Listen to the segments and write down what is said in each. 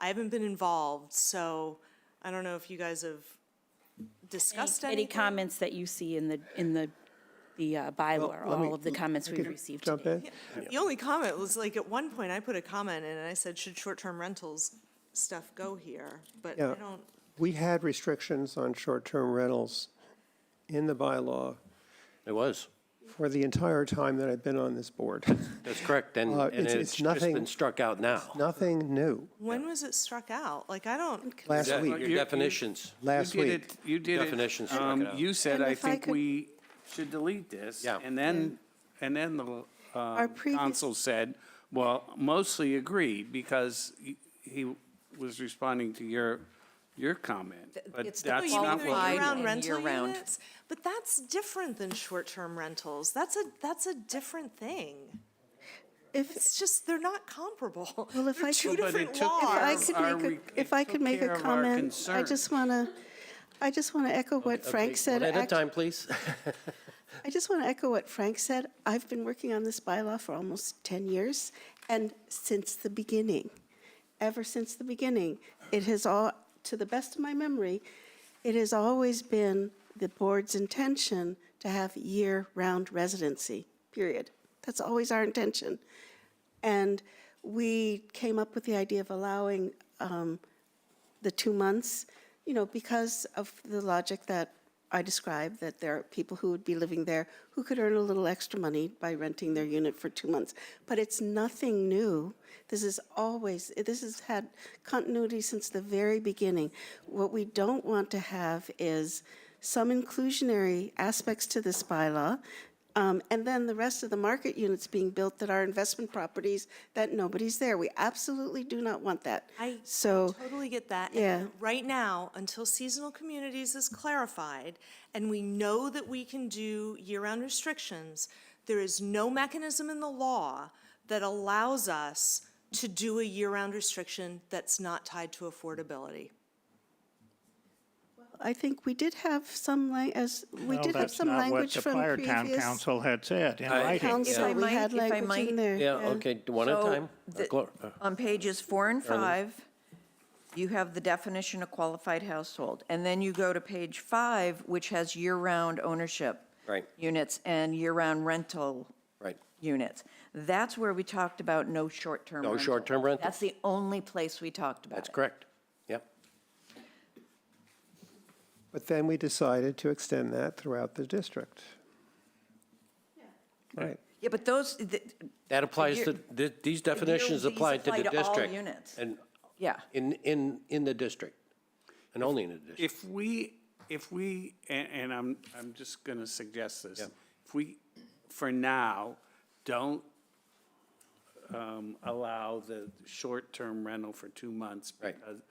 I haven't been involved, so I don't know if you guys have discussed Any anything. comments that you see in the, in the, the uh, bylaw, or let me- all of the comments I we've could received Jump today? in? The only comment was like, at one point, I put a comment in and I said, should short-term rentals stuff go here? But I Yeah. don't, We had restrictions on short-term rentals in the bylaw It was. for the entire time that I've been on this board. That's correct. And, Uh, and it's- it's it's just nothing- been struck out now. Nothing new when was it struck out? Like, I don't, last That- week, you- Your definitions. last You did week. it- You did it. Definitions, check it um, out. You said, And I if I think could- we should delete this. Yeah. And then, and then the uh, previous- council said, well, mostly agreed, because he- he was responding to your, your comment. But it's that's the not oh, you mean what the qualified qualified we year-round and rental year-round. units? But that's different than short-term rentals. That's a, that's a different thing. If, It's just, they're not comparable. Well, if They're I two could- Well, but it different took if I laws. Ours could are make we- a, if I it could took make care a of our comment, I just concerns. want to, I just want to echo what Frank said. One at a Act- time, please. I just want to echo what Frank said. I've been working on this bylaw for almost 10 years, and since the beginning, ever since the beginning, it has all, to the best of my memory, it has always been the board's intention to have year-round residency, period. That's always our intention. And we came up with the idea of allowing um, the two months, you know, because of the logic that I described, that there are people who would be living there who could earn a little extra money by renting their unit for two months. But it's nothing new. This is always, this has had continuity since the very beginning. What we don't want to have is some inclusionary aspects to this bylaw, um, and then the rest of the market units being built that are investment properties that nobody's there. We absolutely do not want that. I So. totally get that. And yeah. Right now, until seasonal communities is clarified, and we know that we can do year-round restrictions, there is no mechanism in the law that allows us to do a year-round restriction that's not tied to affordability. I think we did have some, lang- as, we No, did have that's some not what language the from prior town previous council had said in writing. council. If I We had might- if I language in might- there. Yeah, okay, one at a So time. the- Glo- uh, On pages four and five, you have the definition of qualified household. And then you go to page five, which has year-round ownership. Right. Units and year-round rental. Right. Units. That's where we talked about no short-term No rental. short-term rental. That's the only place we talked about That's it. correct. Yep. But then we decided to extend that throughout the district. Right. Yeah, but those, th- That applies to, year- th- these definitions these apply to apply the to all district. units. And yeah. in, in, in the district, and only in the district. If we, if we, and, and I'm, I'm just going to suggest this. If we, for now, don't um, allow the short-term rental for two months. Right. because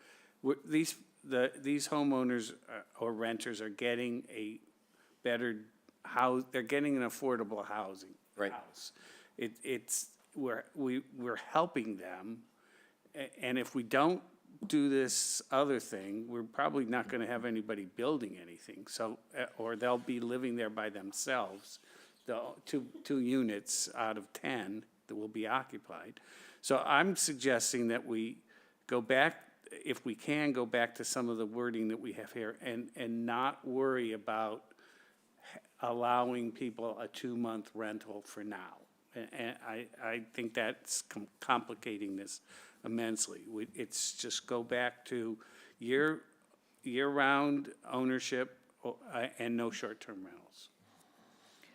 we're- These, the, these homeowners are- or renters are getting a better house, they're getting an affordable housing. Right. house. It, it's, we're, we, we're helping them. A- And if we don't do this other thing, we're probably not going to have anybody building anything. So, uh, or they'll be living there by themselves, the two, two units out of 10 that will be occupied. So I'm suggesting that we go back, if we can, go back to some of the wording that we have here and, and not worry about allowing people a two-month rental for now. And, and I, I think that's com- complicating this immensely. We, it's just go back to year, year-round ownership o- uh, and no short-term rentals.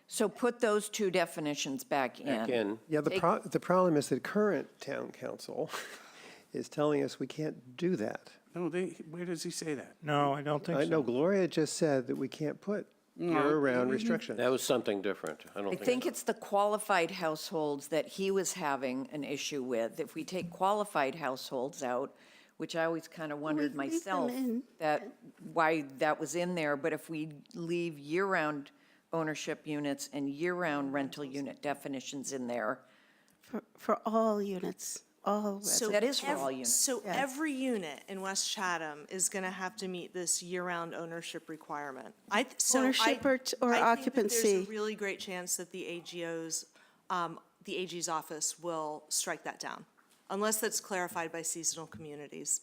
So put those two definitions back in. Again, Yeah, the pro, the problem is that current town council is telling us we can't do that. No, they, where does he say that? No, I don't think I so. know Gloria just said that we can't put Mm-hmm. year-round restrictions. that was something different. I don't I think. think it's the qualified households that he was having an issue with. If we take qualified households out, which I always kind of wondered leave them myself in. that, why that was in there, but if we leave year-round ownership units and year-round rental unit definitions in there, for, for all units, all So residents. that is for ev- all units. So every unit in West Chatham is going to have to meet this year-round ownership requirement. I, th- so I- Ownership or t- I or think that occupancy. There's a really great chance that the AGO's, um, the AG's office will strike that down, unless that's clarified by seasonal communities.